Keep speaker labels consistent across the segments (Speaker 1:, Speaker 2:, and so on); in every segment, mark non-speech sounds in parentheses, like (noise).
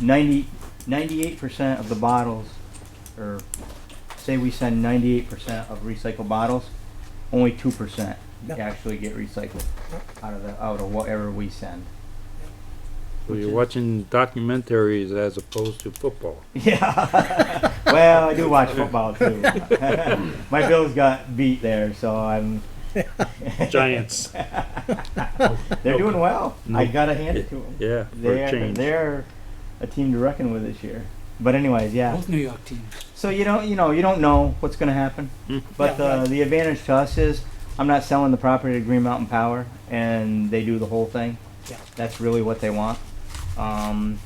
Speaker 1: 90, 98% of the bottles, or say we send 98% of recycled bottles, only 2%
Speaker 2: Yeah.
Speaker 1: actually get recycled out of the, out of whatever we send.
Speaker 3: So you're watching documentaries as opposed to football.
Speaker 1: Yeah. well, I do watch football too. My Bills got beat there, so I'm.
Speaker 3: Giants.
Speaker 1: (laughs) They're doing well. I
Speaker 3: No.
Speaker 1: gotta hand it to them.
Speaker 3: Yeah, for a
Speaker 1: They're
Speaker 3: change.
Speaker 1: they're a team to reckon with this year. But anyways, yeah.
Speaker 4: Both New York teams.
Speaker 1: So you don't you know you don't know what's gonna happen.
Speaker 3: Mm.
Speaker 1: But
Speaker 2: Yeah,
Speaker 1: the
Speaker 2: right.
Speaker 1: the advantage to us is I'm not selling the property to Green Mountain Power, and they do the whole thing.
Speaker 2: Yeah.
Speaker 1: That's really what they want. Um,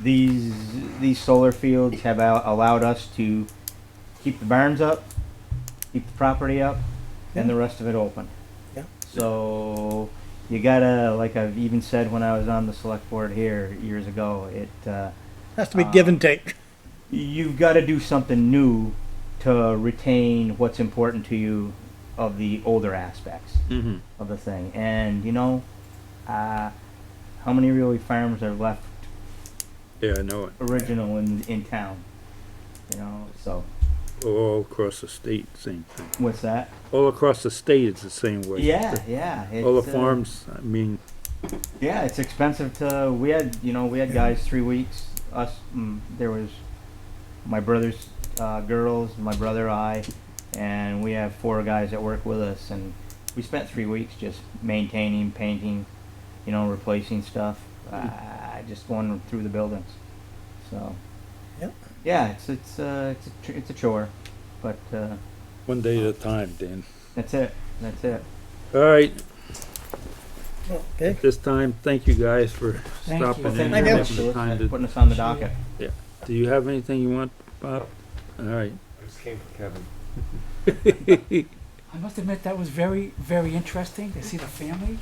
Speaker 1: these these solar fields have al- allowed us to keep the barns up, keep the property up, and the rest of it open.
Speaker 2: Yeah.
Speaker 1: So you gotta, like I've even said when I was on the select board here years ago, it uh,
Speaker 2: Has to be give and take.
Speaker 1: you've got to do something new to retain what's important to you of the older aspects
Speaker 3: Mm-hmm.
Speaker 1: of the thing. And you know, uh, how many really farms are left
Speaker 3: Yeah, I know it.
Speaker 1: original in in town? You know, so
Speaker 3: All across the state, same thing.
Speaker 1: what's that?
Speaker 3: All across the state, it's the same way.
Speaker 1: Yeah, yeah. It's,
Speaker 3: (laughs) All the
Speaker 1: uh,
Speaker 3: farms, I mean,
Speaker 1: Yeah, it's expensive to. We had, you know, we had guys three weeks. Us, mm, there was my brother's uh, girls, my brother, I, and we have four guys that work with us, and we spent three weeks just maintaining, painting, you know, replacing stuff,
Speaker 3: Hmm.
Speaker 1: uh, just going through the buildings. So.
Speaker 2: Yep.
Speaker 1: Yeah, it's it's uh, it's a tr- it's a chore, but uh,
Speaker 3: one day at a time, Dan.
Speaker 1: that's it. That's it.
Speaker 3: All right,
Speaker 2: Okay.
Speaker 3: this time, thank you guys for
Speaker 4: Thank you.
Speaker 3: stopping in.
Speaker 1: Thank
Speaker 2: I
Speaker 1: you
Speaker 3: and
Speaker 2: know.
Speaker 1: very
Speaker 2: do.
Speaker 1: much for
Speaker 3: having the time to-
Speaker 1: putting us on the docket.
Speaker 3: Do you have anything you want, Bob?
Speaker 1: (laughs)
Speaker 3: All right.
Speaker 5: I just came from Kevin.
Speaker 4: I must admit that was very, very interesting to see the family.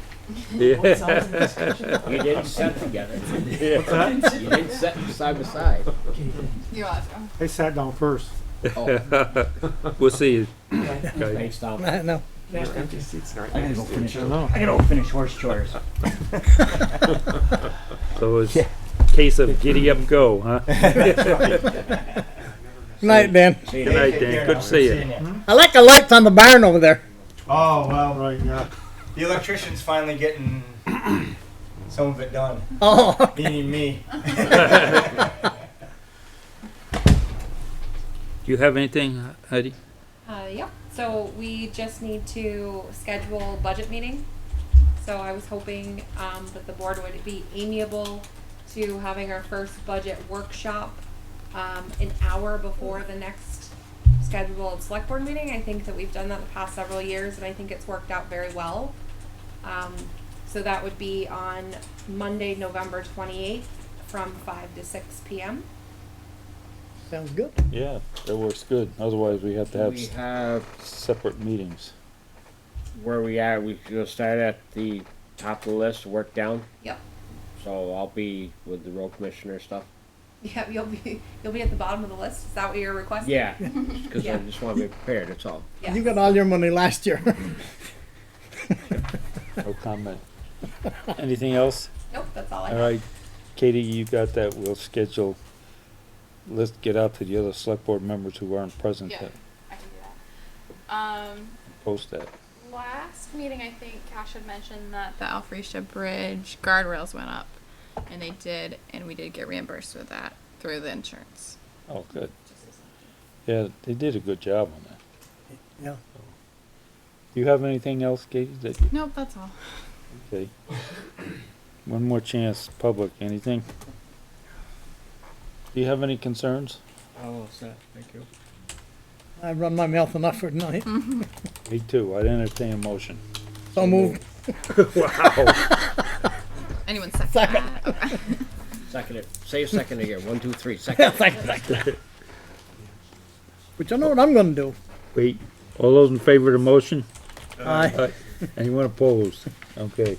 Speaker 3: Yeah.
Speaker 4: Both sides of the discussion.
Speaker 6: You didn't sit together.
Speaker 3: (laughs)
Speaker 6: You didn't sit side by side.
Speaker 7: You awesome.
Speaker 8: They sat down first.
Speaker 6: Oh,
Speaker 1: (laughs)
Speaker 3: We'll see you
Speaker 4: Okay.
Speaker 3: guys.
Speaker 6: thanks, Tom.
Speaker 2: I know.
Speaker 5: Your empty seats aren't
Speaker 1: I gotta
Speaker 5: nice
Speaker 1: go
Speaker 5: to
Speaker 1: finish.
Speaker 8: I know.
Speaker 1: I gotta go finish horse (laughs) chores.
Speaker 3: So it's case of giddy up go, huh?
Speaker 2: Night, Dan.
Speaker 3: Good night, Dan. Good to see you.
Speaker 8: Hmm?
Speaker 2: I like the lights on the barn over there.
Speaker 8: Oh, well, right, yeah.
Speaker 1: The electrician's finally (clears throat) getting some of it done,
Speaker 2: Oh,
Speaker 1: meaning (laughs) me.
Speaker 3: Do you have anything, Heidi?
Speaker 7: Uh, yeah. So we just need to schedule budget meeting. So I was hoping um, that the board would be amiable to having our first budget workshop um, an hour before the next scheduled select board meeting. I think that we've done that the past several years, and I think it's worked out very well. Um, so that would be on Monday, November twenty eighth, from five to six p.m.
Speaker 2: sounds good.
Speaker 3: Yeah, that works good. Otherwise, we have to have
Speaker 6: We
Speaker 3: s-
Speaker 6: have,
Speaker 3: separate meetings.
Speaker 6: where we are, we should start at the top of the list, work down.
Speaker 7: Yep. (laughs)
Speaker 6: So I'll be with the road commissioner stuff.
Speaker 7: Yeah, you'll be you'll be at the bottom of the list. Is that what you're requesting?
Speaker 6: Yeah, because I
Speaker 7: Yeah.
Speaker 6: just want to be prepared, that's all.
Speaker 7: Yes.
Speaker 2: You got all your money last year. (laughs)
Speaker 3: No comment. Anything else?
Speaker 7: Nope, that's all I
Speaker 3: All
Speaker 7: got.
Speaker 3: right, Katie, you got that. We'll schedule. Let's get out to the other select board members who aren't present
Speaker 7: Yeah.
Speaker 3: and
Speaker 7: I can do that. Um,
Speaker 3: post that.
Speaker 7: last meeting, I think Cash had mentioned that the Alfresia Bridge guardrails went up, and they did, and we did get reimbursed with that through the insurance.
Speaker 3: Oh, good. Yeah, they did a good job on that.
Speaker 2: Yeah.
Speaker 3: Do you have anything else, Katie, that you,
Speaker 7: Nope, that's all.
Speaker 3: okay? One more chance, public, anything? Do you have any concerns?
Speaker 2: I run my mouth enough for tonight.
Speaker 3: Me too. I'd entertain a motion.
Speaker 2: So moved.
Speaker 3: Wow.
Speaker 7: Anyone second?
Speaker 2: Second.
Speaker 7: that?
Speaker 6: Second it, say a second again, one, two, three, second.
Speaker 2: But you know what I'm gonna do?
Speaker 5: Uh,
Speaker 3: Wait, all those in favor of the motion?
Speaker 2: I
Speaker 3: Anyone opposed? Okay.